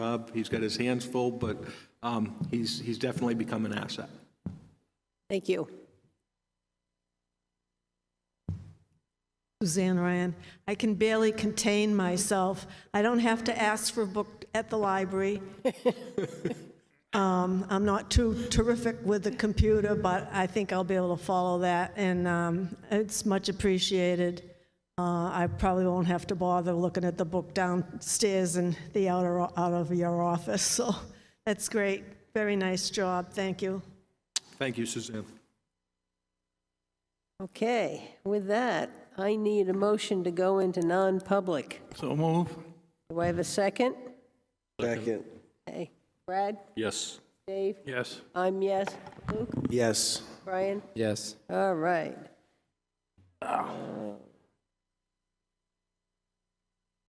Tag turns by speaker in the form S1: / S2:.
S1: Rob, he's got his hands full, but um, he's, he's definitely become an asset.
S2: Thank you.
S3: Suzanne Ryan. I can barely contain myself. I don't have to ask for a book at the library. Um, I'm not too terrific with the computer, but I think I'll be able to follow that, and um, it's much appreciated. Uh, I probably won't have to bother looking at the book downstairs in the outer, out of your office, so that's great. Very nice job, thank you.
S1: Thank you, Suzanne.
S2: Okay, with that, I need a motion to go into non-public.
S1: So move.
S2: Do I have a second?
S4: Second.
S2: Hey, Brad,
S1: Yes.
S2: Dave,
S1: Yes.
S2: I'm yes. Luke,
S4: Yes.
S2: Brian?
S5: Yes.
S2: All right.